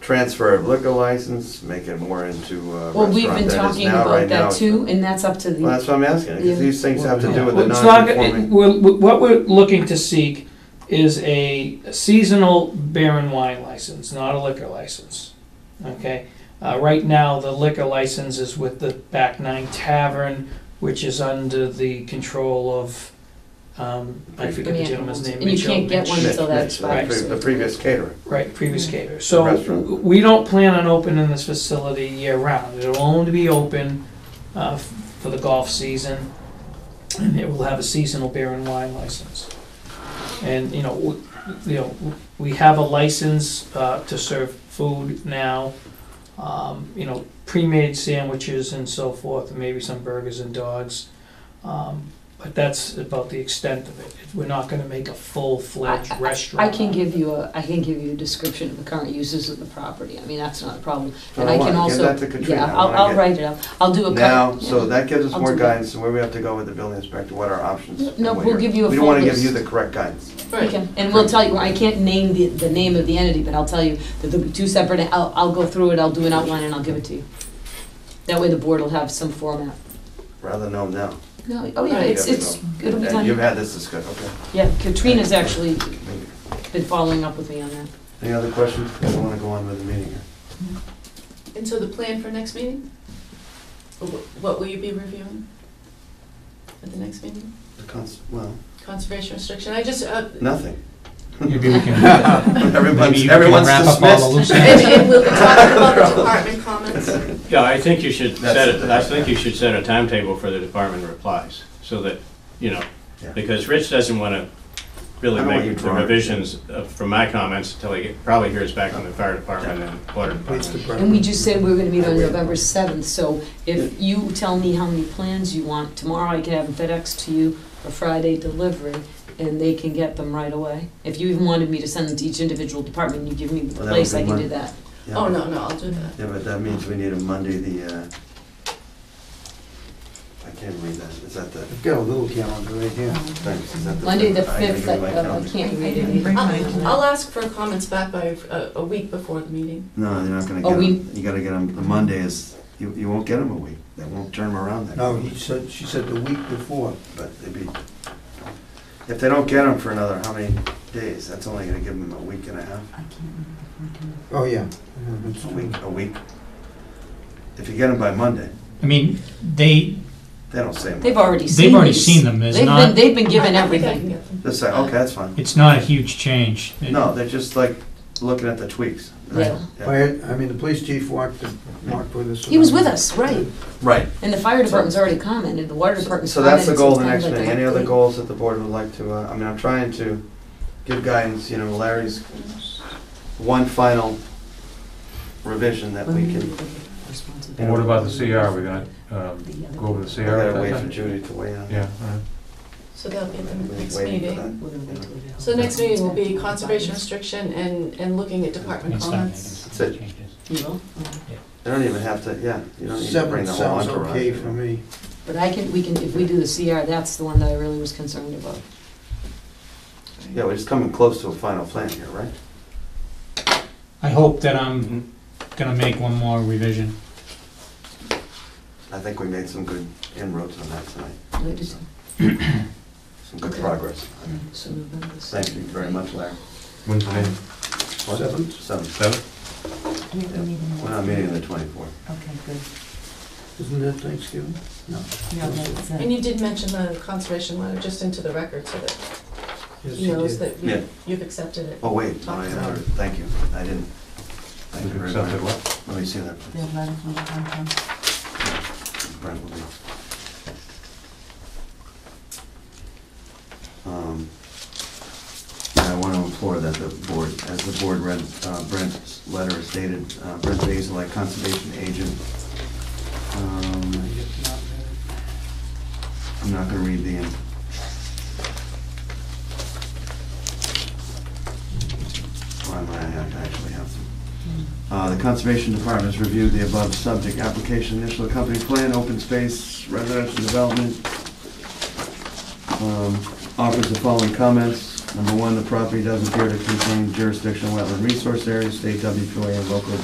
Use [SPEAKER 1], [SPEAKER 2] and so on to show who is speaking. [SPEAKER 1] transfer of liquor license, make it more into a
[SPEAKER 2] Well, we've
[SPEAKER 1] restaurant
[SPEAKER 2] been
[SPEAKER 1] that is
[SPEAKER 2] talking
[SPEAKER 1] now,
[SPEAKER 2] about
[SPEAKER 1] right now.
[SPEAKER 2] that too, and that's up to
[SPEAKER 1] Well,
[SPEAKER 2] the,
[SPEAKER 1] that's what I'm asking,
[SPEAKER 2] Yeah.
[SPEAKER 1] because these things have to do with the
[SPEAKER 3] Well, it's not- it-
[SPEAKER 1] non-conforming.
[SPEAKER 3] we're- we- What we're looking to seek is a seasonal beer and wine license, not a liquor license, okay? Uh, right now, the liquor license is with the Back Nine Tavern, which is under the control of, um, I forget the
[SPEAKER 2] Yeah.
[SPEAKER 3] gentleman's name.
[SPEAKER 2] And you
[SPEAKER 3] Mitchell
[SPEAKER 2] can't get one
[SPEAKER 3] Mitch-
[SPEAKER 1] Mitch,
[SPEAKER 2] until that
[SPEAKER 1] Mitch, the pre-
[SPEAKER 2] expires.
[SPEAKER 1] The previous caterer.
[SPEAKER 3] Right, previous caterer.
[SPEAKER 1] Restaurant.
[SPEAKER 3] So we don't plan on opening this facility year round. It'll only be open uh, f- for the golf season, and it will have a seasonal beer and wine license. And, you know, w- you know, w- we have a license uh, to serve food now, um, you know, pre-made sandwiches and so forth, and maybe some burgers and dogs. Um, But that's about the extent of it. We're not gonna make a full-fledged
[SPEAKER 2] I- I
[SPEAKER 3] restaurant.
[SPEAKER 2] can give you a, I can give you a description of the current uses of the property, I mean, that's not a problem.
[SPEAKER 1] So
[SPEAKER 2] And
[SPEAKER 1] I
[SPEAKER 2] I
[SPEAKER 1] wanna
[SPEAKER 2] can
[SPEAKER 1] give
[SPEAKER 2] also,
[SPEAKER 1] that to Katrina.
[SPEAKER 2] yeah,
[SPEAKER 1] I
[SPEAKER 2] I'll,
[SPEAKER 1] wanna
[SPEAKER 2] I'll
[SPEAKER 1] get-
[SPEAKER 2] write it up, I'll do a cut.
[SPEAKER 1] Now, so
[SPEAKER 2] yeah.
[SPEAKER 1] that gives us
[SPEAKER 2] I'll
[SPEAKER 1] more
[SPEAKER 2] do that.
[SPEAKER 1] guidance, and where we have to go with the building inspector, what our options. and
[SPEAKER 2] No,
[SPEAKER 1] what
[SPEAKER 2] we'll
[SPEAKER 1] your-
[SPEAKER 2] give you a
[SPEAKER 1] We
[SPEAKER 2] full
[SPEAKER 1] don't wanna give
[SPEAKER 2] list.
[SPEAKER 1] you the correct guidance.
[SPEAKER 2] Okay, and we'll tell you, I can't name the, the name of the entity, but I'll tell you that there'll be two separate, I'll, I'll go through it, I'll do an outline and I'll give it to you. That way the board will have some format.
[SPEAKER 1] Rather know now.
[SPEAKER 2] No, oh yeah, it's, it's, it'll be
[SPEAKER 1] And you've
[SPEAKER 2] done.
[SPEAKER 1] had this discussion, okay.
[SPEAKER 2] Yeah, Katrina's actually
[SPEAKER 1] Thank you.
[SPEAKER 2] been following up with me on that.
[SPEAKER 1] Any other questions? I don't wanna go on with the meeting here.
[SPEAKER 4] And so the plan for next meeting? Wh- What will you be reviewing at the next meeting?
[SPEAKER 1] The cons, well,
[SPEAKER 4] Conservation restriction, I just, uh,
[SPEAKER 1] nothing.
[SPEAKER 5] Maybe we can, maybe
[SPEAKER 1] Everyone's,
[SPEAKER 5] you can
[SPEAKER 1] everyone's
[SPEAKER 5] wrap up all the
[SPEAKER 1] dismissed.
[SPEAKER 5] loose
[SPEAKER 4] and,
[SPEAKER 5] ends.
[SPEAKER 4] and we'll be talking about the department comments.
[SPEAKER 6] Yeah, I think you should
[SPEAKER 1] That's
[SPEAKER 6] set,
[SPEAKER 1] it,
[SPEAKER 6] it- I think
[SPEAKER 1] yeah.
[SPEAKER 6] you should set a timetable for the department replies, so that, you know,
[SPEAKER 1] Yeah.
[SPEAKER 6] because Rich doesn't want to
[SPEAKER 1] I
[SPEAKER 6] really
[SPEAKER 1] don't want you
[SPEAKER 6] make the
[SPEAKER 1] drawing.
[SPEAKER 6] revisions uh, from my comments until he probably hears back from the fire department and water department.
[SPEAKER 2] And we just said we were gonna meet on November seventh, so if you tell me how many plans you want, tomorrow I can have them FedEx to you for Friday delivery, and they can get them right away. If you even wanted me to send them to each individual department, you give me the
[SPEAKER 1] Well, that would
[SPEAKER 2] place,
[SPEAKER 1] be
[SPEAKER 2] I can
[SPEAKER 1] Mon-
[SPEAKER 2] do that.
[SPEAKER 1] Yeah.
[SPEAKER 4] Oh, no, no, I'll do that.
[SPEAKER 1] Yeah, but that means we need a Monday, the, uh, I can't read that, is that the,
[SPEAKER 7] I've got a little calendar right here.
[SPEAKER 1] thanks, is that the?
[SPEAKER 2] Um, Monday the
[SPEAKER 1] I gotta
[SPEAKER 2] fifth,
[SPEAKER 1] give
[SPEAKER 2] I
[SPEAKER 1] you my
[SPEAKER 2] uh, I
[SPEAKER 1] calendar.
[SPEAKER 2] can't read
[SPEAKER 4] I'll-
[SPEAKER 2] it.
[SPEAKER 4] I'll ask for comments back by uh, a, a week before the meeting.
[SPEAKER 1] No, you're not gonna
[SPEAKER 2] Oh,
[SPEAKER 1] get
[SPEAKER 2] we-
[SPEAKER 1] them, you gotta get them, the Monday is, you, you won't get them a week, they won't turn them around that.
[SPEAKER 7] No, he
[SPEAKER 1] quickly.
[SPEAKER 7] said, she said the week before.
[SPEAKER 1] But they'd be, if they don't get them for another, how many days, that's only gonna give them a week and a half,
[SPEAKER 7] Oh, yeah. Yeah, that's
[SPEAKER 1] a
[SPEAKER 7] true.
[SPEAKER 1] week, a week. If you get them by Monday,
[SPEAKER 5] I mean, they,
[SPEAKER 1] they don't say them,
[SPEAKER 2] They've already seen
[SPEAKER 5] they've already
[SPEAKER 2] these.
[SPEAKER 5] seen them, it's
[SPEAKER 2] They've been,
[SPEAKER 5] not,
[SPEAKER 2] they've been
[SPEAKER 4] I- I
[SPEAKER 2] given
[SPEAKER 4] think I
[SPEAKER 2] everything.
[SPEAKER 4] can get them.
[SPEAKER 1] just say, okay, that's fine,
[SPEAKER 5] it's not a huge change. It-
[SPEAKER 1] no, they're just like looking at the tweaks.
[SPEAKER 2] Yeah.
[SPEAKER 7] Fire- I mean, the police chief walked, walked with us.
[SPEAKER 2] He was with us, right,
[SPEAKER 1] Right,
[SPEAKER 2] and the fire department's already commented, the water department's
[SPEAKER 1] So
[SPEAKER 2] commented.
[SPEAKER 1] that's the goal of the next
[SPEAKER 2] sometimes I
[SPEAKER 1] meeting.
[SPEAKER 2] don't
[SPEAKER 1] Any other
[SPEAKER 2] think-
[SPEAKER 1] goals that the board would like to, uh, I mean, I'm trying to give guidance, you know, Larry's one final revision that we can,
[SPEAKER 8] And what about the CR, we're gonna, um, go over the
[SPEAKER 1] we
[SPEAKER 8] CR?
[SPEAKER 1] gotta wait for Judy to weigh in.
[SPEAKER 8] Yeah, uh, all right.
[SPEAKER 4] So that'll be at the
[SPEAKER 1] We've been
[SPEAKER 4] next
[SPEAKER 1] waiting for
[SPEAKER 4] meeting.
[SPEAKER 1] that.
[SPEAKER 2] We're gonna wait till we know.
[SPEAKER 4] So the next meeting will be conservation restriction and, and looking at department
[SPEAKER 5] It's not
[SPEAKER 4] comments.
[SPEAKER 1] That's it.
[SPEAKER 5] changes.
[SPEAKER 2] You will?
[SPEAKER 1] They don't even have to, yeah, you don't need to bring
[SPEAKER 7] Seven
[SPEAKER 1] the whole
[SPEAKER 7] sounds
[SPEAKER 1] entourage.
[SPEAKER 7] okay for me.
[SPEAKER 2] But I can, we can, if we do the CR, that's the one that I really was concerned about.
[SPEAKER 1] Yeah, we're just coming close to a final plan here, right?
[SPEAKER 5] I hope that I'm gonna make one more revision.
[SPEAKER 1] I think we made some good inroads on that tonight,
[SPEAKER 2] I just-
[SPEAKER 1] some good
[SPEAKER 2] Okay.
[SPEAKER 1] progress.
[SPEAKER 2] so November
[SPEAKER 1] Thank you very much, Larry.
[SPEAKER 8] When's the name?
[SPEAKER 1] What?
[SPEAKER 7] Seven?
[SPEAKER 1] Seven.
[SPEAKER 8] Seven?
[SPEAKER 1] We're not meeting on the twenty-fourth.
[SPEAKER 9] Okay, good.
[SPEAKER 7] Isn't that Thanksgiving? No.
[SPEAKER 9] No, that's, uh,
[SPEAKER 4] And you did mention the conservation letter, just into the record so that
[SPEAKER 7] Yes,
[SPEAKER 4] he
[SPEAKER 7] he
[SPEAKER 4] knows
[SPEAKER 7] did.
[SPEAKER 4] that we-
[SPEAKER 1] Yeah.
[SPEAKER 4] you've accepted it.
[SPEAKER 1] Oh, wait, no, I had, thank you, I didn't. Thank you very
[SPEAKER 8] Accepted
[SPEAKER 1] much.
[SPEAKER 8] what?
[SPEAKER 1] Let me see that.
[SPEAKER 9] the letter from the Concom.
[SPEAKER 1] Brent will be. Um, I want to implore that the board, as the board read uh, Brent's letter is dated, uh, Brent Basil, conservation agent. Um, I'm not gonna read the end. Why am I, I actually have some. Uh, The Conservation Department has reviewed the above subject application, initial accompanying plan, open space, residential development. Um, Offers the following comments. Number one, the property does appear to contain jurisdictional wetland resource areas, state WPOA and local